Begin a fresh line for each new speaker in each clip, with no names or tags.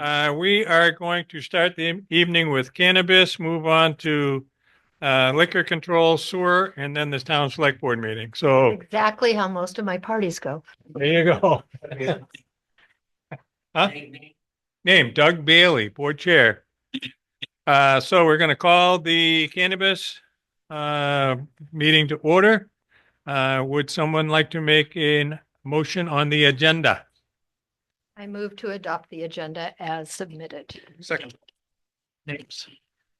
Uh, we are going to start the evening with cannabis, move on to uh, liquor control, sewer, and then the town select board meeting. So
Exactly how most of my parties go.
there you go. Huh? Name Doug Bailey, board chair. Uh, so we're going to call the cannabis uh, meeting to order. Uh, would someone like to make a motion on the agenda?
I move to adopt the agenda as submitted.
Second. Names.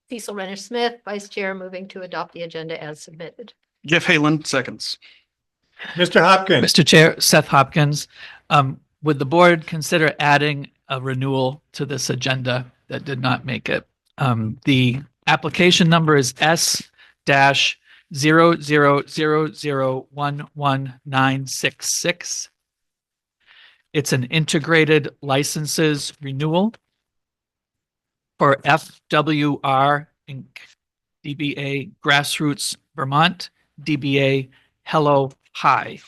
Cecil Renner Smith, Vice Chair, moving to adopt the agenda as submitted.
Jeff Halen, seconds.
Mr. Hopkins,
Mr. Chair, Seth Hopkins, um, would the board consider adding a renewal to this agenda that did not make it? Um, the application number is S dash zero zero zero zero one one nine six six. It's an integrated licenses renewal for FWR Inc., DBA Grassroots Vermont, DBA Hello High.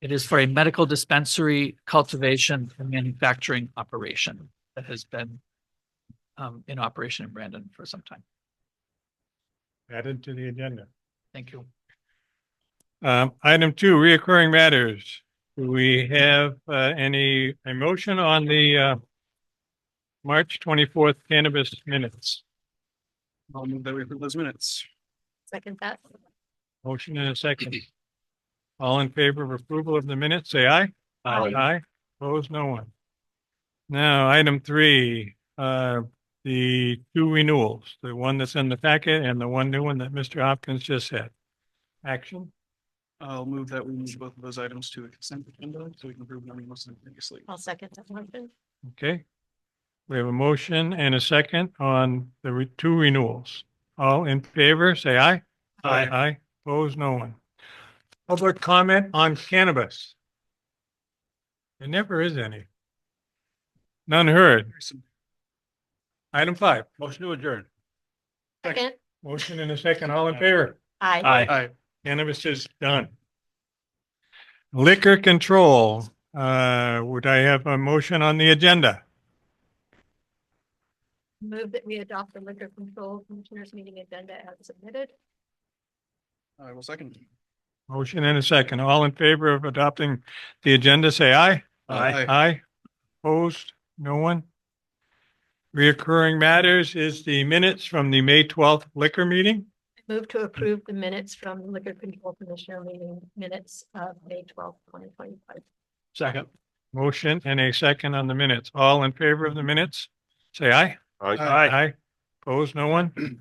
It is for a medical dispensary cultivation and manufacturing operation that has been um, in operation in Brandon for some time.
added to the agenda.
Thank you.
Um, item two, reoccurring matters. Do we have, uh, any emotion on the, uh, March twenty-fourth cannabis minutes?
I'll move that we approve those minutes.
Second that.
Motion and a second. All in favor of approval of the minutes, say aye.
Aye.
Aye, opposed, no one. Now, item three, uh, the two renewals, the one that's in the packet and the one new one that Mr. Hopkins just said. Action?
I'll move that we move both of those items to a consent agenda so we can approve them simultaneously.
I'll second that motion.
Okay. We have a motion and a second on the re- two renewals. All in favor, say aye.
Aye.
Aye, opposed, no one. Public comment on cannabis. There never is any. None heard. Item five, motion to adjourn.
Second.
Motion and a second, all in favor?
Aye.
Aye.
Cannabis is done. Liquor control, uh, would I have a motion on the agenda?
Move that we adopt the liquor control commissioners meeting agenda as submitted.
I will second.
Motion and a second. All in favor of adopting the agenda, say aye.
Aye.
Aye. Opposed? No one? Reoccurring matters is the minutes from the May twelfth liquor meeting.
Move to approve the minutes from the liquor control commissioner meeting minutes of May twelfth, twenty twenty-five.
Second.
Motion and a second on the minutes. All in favor of the minutes, say aye.
Aye.
Aye. Opposed? No one?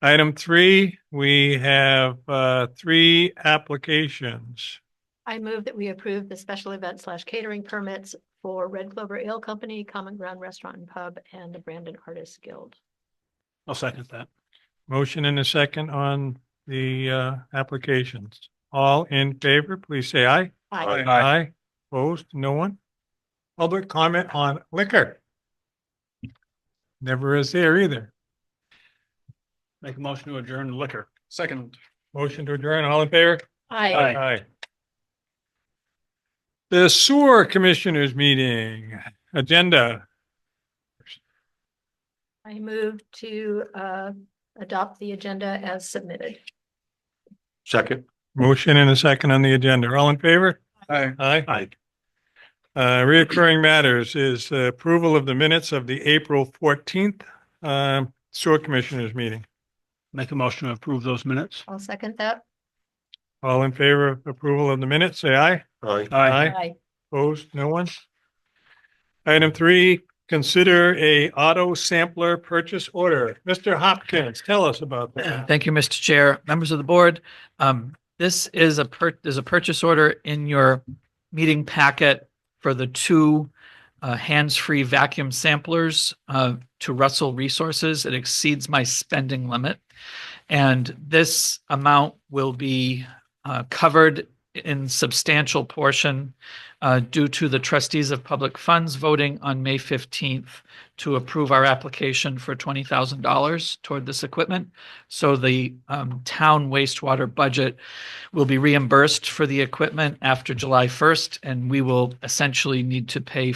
Item three, we have, uh, three applications.
I move that we approve the special event slash catering permits for Red Clover Ale Company, Common Ground Restaurant and Pub, and the Brandon Artists Guild.
I'll second that.
Motion and a second on the, uh, applications. All in favor, please say aye.
Aye.
Aye.
Aye. Opposed? No one? Public comment on liquor? Never is there either.
Make a motion to adjourn liquor. Second.
Motion to adjourn, all in favor?
Aye.
Aye. The sewer commissioners meeting agenda.
I move to uh, adopt the agenda as submitted.
Second.
Motion and a second on the agenda. All in favor?
Aye.
Aye.
Aye.
Uh, reoccurring matters is uh, approval of the minutes of the April fourteenth, um, sewer commissioners meeting.
Make a motion to approve those minutes.
I'll second that.
All in favor of approval of the minutes, say aye.
Aye.
Aye.
Aye.
Opposed, no one? Item three, consider a auto sampler purchase order. Mr. Hopkins, tell us about that.
Thank you, Mr. Chair, members of the board. Um, this is a per, there's a purchase order in your meeting packet for the two uh, hands-free vacuum samplers uh, to Russell Resources. It exceeds my spending limit. And this amount will be uh, covered in substantial portion uh, due to the trustees of public funds voting on May 15th to approve our application for $20,000 toward this equipment. So the um, town wastewater budget will be reimbursed for the equipment after July 1st, and we will essentially need to pay